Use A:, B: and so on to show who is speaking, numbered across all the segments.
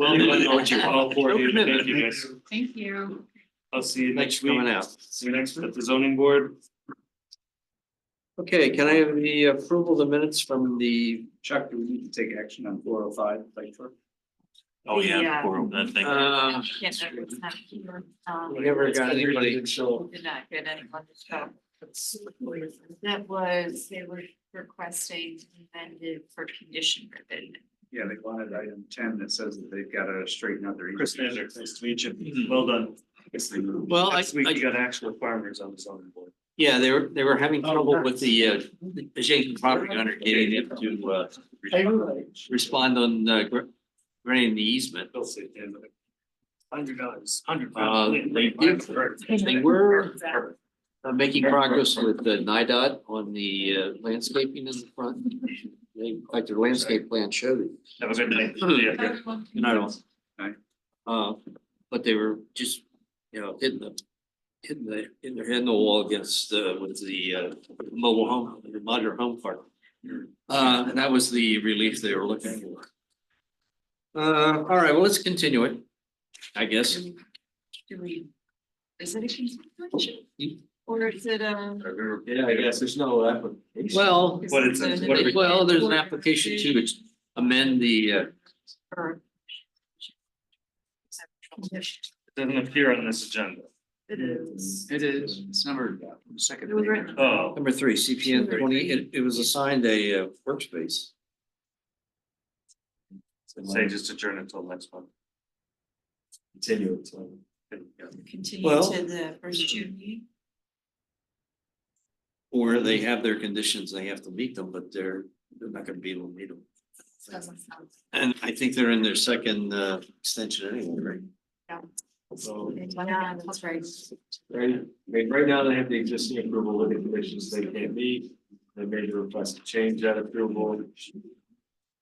A: Well,
B: Anybody
A: then,
B: know what you're-
A: all four of you, thank you guys.
C: Thank you.
A: I'll see you
B: Thanks
A: next
B: for
A: week.
B: coming out.
A: See you next, at the zoning board.
B: Okay, can I have the approval of the minutes from the,
D: Chuck, do we need to take action on four oh five, like, for-
C: Oh, yeah, Yeah.
A: that thing.
B: uh,
C: Yeah, that was not here. Um,
B: we never got anybody,
C: we Did not get anyone to show. That was, they were requesting amended for condition ribbon.
D: yeah, they wanted item ten that says that they've got to straighten out their.
A: Chris Nander, nice to meet you. Well done.
B: Hmm. Well, I-
A: Next week,
B: I-
A: you got actual farmers on the zoning board.
B: yeah, they were, they were having trouble with the uh, adjacent property owner getting it to uh. Respond on uh gr- granting the easement,
A: They'll say, yeah, but Hundred dollars, hundred
B: Uh,
A: pounds.
B: they did- they were uh, making progress with the NIDOT on the uh, landscaping in the front. They, in fact, their landscape plan showed it.
A: Have a good night.
B: Yeah. And I don't. Uh, but they were just, you know, hitting the, hitting the, hitting their head in the wall against uh with the uh mobile home, the modular home park. Uh, and that was the relief they were looking for. Uh, all right, well, let's continue it, I guess.
C: Do we, is it a continuation? Or is it a?
A: Yeah, I guess there's no application.
B: Well,
C: is
A: What
C: it
A: it's-
C: an
A: what it-
B: well, there's an application too, it's amend the uh,
C: Or-
A: Doesn't appear on this agenda.
C: It is.
D: It is, it's numbered, yeah, second.
C: It was written.
A: Oh,
B: number three, CPN twenty, it it was assigned a uh workspace.
A: say just adjourn until next one. Continue.
C: Continue
B: Well-
C: to the first June meeting.
B: Or they have their conditions, they have to meet them, but they're, they're not gonna be able to meet them.
C: Doesn't sound-
B: And I think they're in their second uh extension anyway, right?
A: So,
C: Yeah, that's right.
A: right, I mean, right now they have the existing approval with the conditions they can't meet. They made a request to change that approval.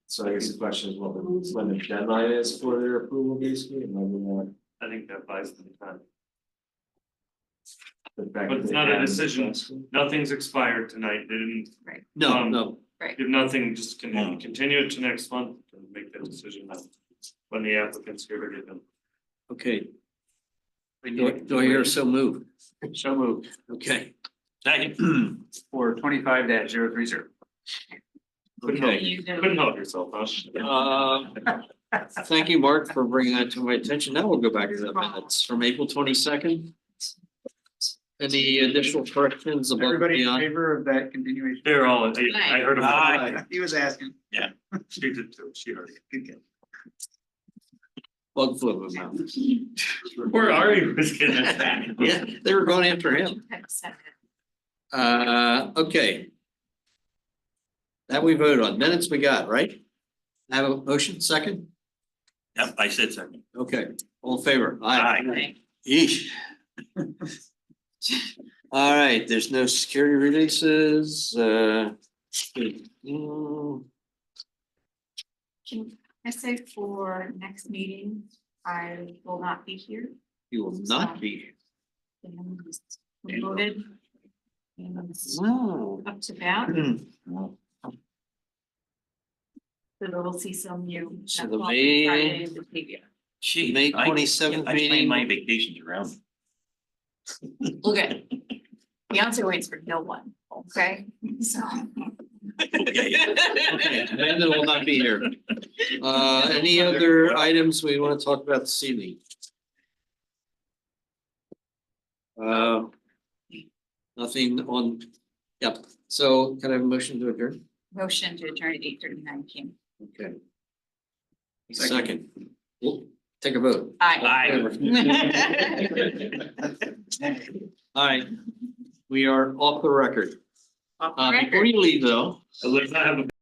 A: So I guess the question is what the, when the deadline is for their approval basically, and when we want. I think that buys them time. But it's not a decision, nothing's expired tonight, they didn't,
B: No,
A: Um,
B: no,
A: if nothing, just
E: Hmm.
A: continue, continue it to next month and make that decision then. When the applicants get ready to.
B: okay. Do I, do I hear so move?
D: So moved.
B: Okay.
D: For twenty-five dash zero three zero.
A: Couldn't help,
B: Okay,
C: You know-
A: couldn't help yourself, huh?
B: uh, thank you, Mark, for bringing that to my attention. Now we'll go back to the minutes from April twenty second. Any additional corrections above and
D: Everybody in
B: beyond?
D: favor of that continuation?
A: They're all, I I heard about it.
D: He was asking.
A: She did too, she heard it.
B: Bug flew in my mouth.
A: Where are you? Just kidding.
B: Yeah, they were going after him.
C: You had said it.
B: Uh, okay. That we voted on, minutes we got, right? Have a motion, second?
E: Yep, I said something.
B: Okay, all in favor,
E: Aye.
B: aye.
C: Right.
B: Yeesh. All right, there's no security releases, uh. mm,
C: Can I say for next meeting, I will not be here.
B: You will not be,
C: and Promoted. And it's
B: no.
C: Up to bat,
B: So
C: so we'll see some new.
B: So the
C: Friday
B: main-
C: in the preview.
E: Gee,
B: May
E: I-
B: 27th
E: I plan
B: meeting.
E: My vacations around.
C: Okay. Beyonce waits for no one, okay? So.
E: Okay.
B: Okay, Amanda will not be here. Uh, any other items we wanna talk about this evening? Uh. Nothing on, yep, so can I have a motion to adjourn?
C: Motion to adjourn at eight thirty nine, Kim.
B: Okay.
D: Second.
B: Second, Well, take a vote.
C: Aye. né?
B: All right, we are off the record.
C: Off the
B: Uh,
C: record.
B: before you leave though.
A: I live, I have a